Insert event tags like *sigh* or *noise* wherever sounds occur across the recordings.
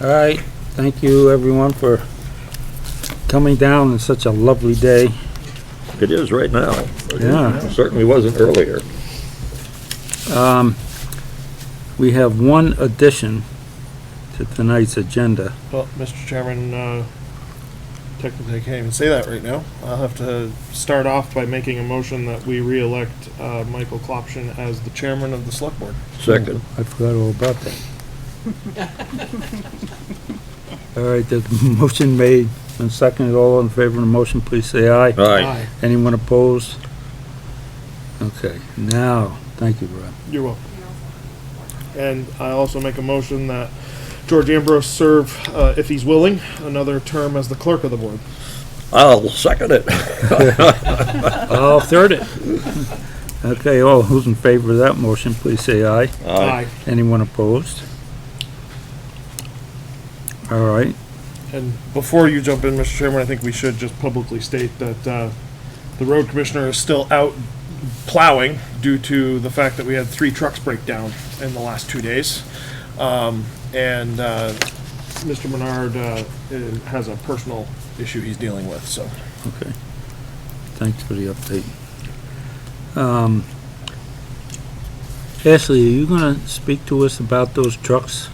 All right, thank you everyone for coming down on such a lovely day. It is right now. Yeah. Certainly wasn't earlier. Um, We have one addition to tonight's agenda. Well, Mr. Chairman, uh, technically I can't even say that right now. I'll have to start off by making a motion that we reelect uh, Michael Klopshin as the chairman of the select board. Second, I forgot all about that. All right, the motion made and seconded. All in favor of the motion, please say aye. aye. Anyone opposed? Okay, now, thank you, Rob. You're welcome. And I also make a motion that George Ambrose serve, uh, if he's willing, another term as the clerk of the board. I'll second it. *laughs* I'll third it. *laughs* Okay, all who's in favor of that motion, please say aye. Anyone opposed? All right, And before you jump in, Mr. Chairman, I think we should just publicly state that uh, the road commissioner is still out plowing due to the fact that we had three trucks break down in the last two days. Um, And uh, Mr. Menard uh, i- has a personal issue he's dealing with, so. okay. Thanks for the update. Um, Ashley, are you gonna speak to us about those trucks?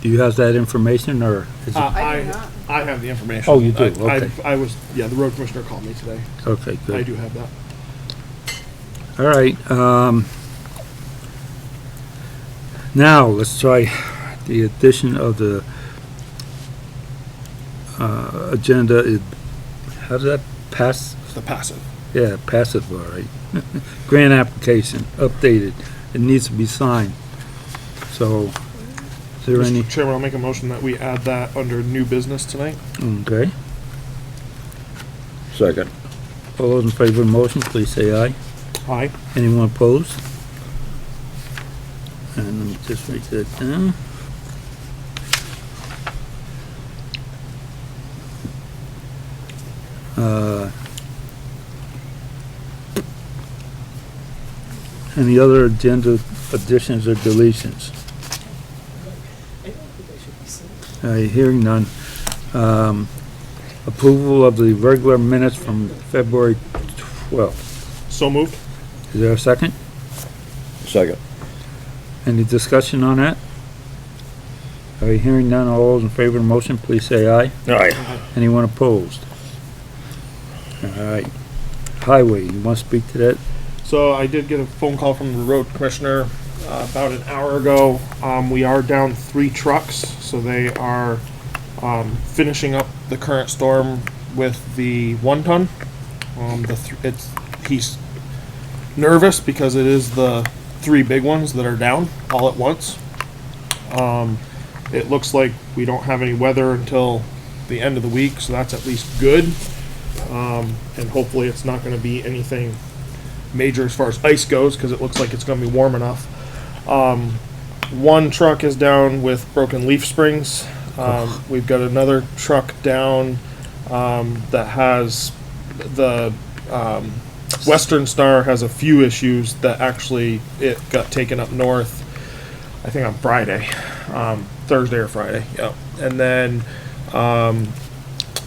Do you have that information, or is Uh, it, I do not. I have the information. Oh, you do, I- I- okay. I was, yeah, the road commissioner called me today. okay, good. I do have that. All right, um, now, let's try the addition of the, uh, agenda, is- how does that pass? The passive. Yeah, passive, all right. Grant application, updated, it needs to be signed. So, is there any, Mr. Chairman, I'll make a motion that we add that under new business tonight. okay, Second, all those in favor of the motion, please say aye. Aye. Anyone opposed? And let me just write that down. Uh, Any other agenda additions or deletions? Uh, hearing none. Um, approval of the regular minutes from February twelfth. So moved. Is there a second? second. Any discussion on that? Are you hearing none? All those in favor of the motion, please say aye. Aye. Anyone opposed? All right. Highway, you want to speak to that? So I did get a phone call from the road commissioner uh, about an hour ago. Um, we are down three trucks, so they are um, finishing up the current storm with the one ton. Um, the th- it's he's nervous because it is the three big ones that are down all at once. Um, it looks like we don't have any weather until the end of the week, so that's at least good. Um, and hopefully, it's not going to be anything major as far as ice goes because it looks like it's going to be warm enough. Um, one truck is down with broken leaf springs. Um, we've got another truck down um, that has the um, Western Star has a few issues that actually it got taken up north. I think on Friday, um, Thursday or Friday. Yeah, and then um,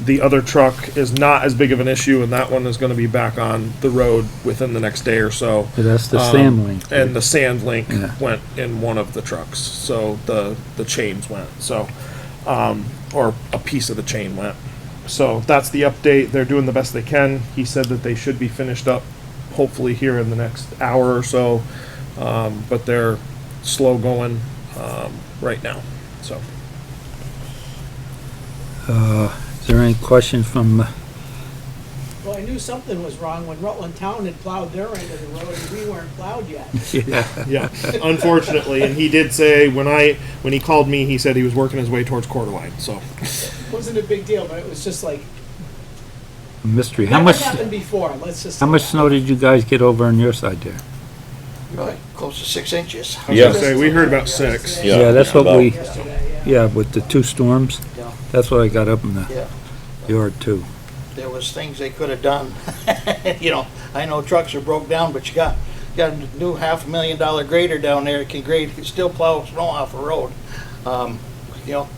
the other truck is not as big of an issue, and that one is going to be back on the road within the next day or so. That's the Um, sand link. And the sand link Yeah. went in one of the trucks, so the the chains went. So, um, or a piece of the chain went. So that's the update. They're doing the best they can. He said that they should be finished up, hopefully here in the next hour or so. Um, but they're slow going um, right now. So Is there any questions from, uh, Well, I knew something was wrong when Rutland Town had plowed their end of the road and we weren't plowed yet. Yeah, unfortunately, and he did say when I when he called me, he said he was working his way towards Coeur d'Alene, So Wasn't a big deal, but it was just like, mystery? How never much, happened before, let's just. how much snow did you guys get over on your side there? Right, close to six inches. I was Yeah. gonna say we heard about six. Yeah, Yeah, that's what about- we, Yesterday, yeah. yeah, with the two storms, Yeah. that's what I got up in the Yeah, yard too. there was things they could have done. *laughs* You know, I know trucks are broke down, but you got, got a new half a million dollar grader down there, that can grade, can still plow snow off a road. Um, You know,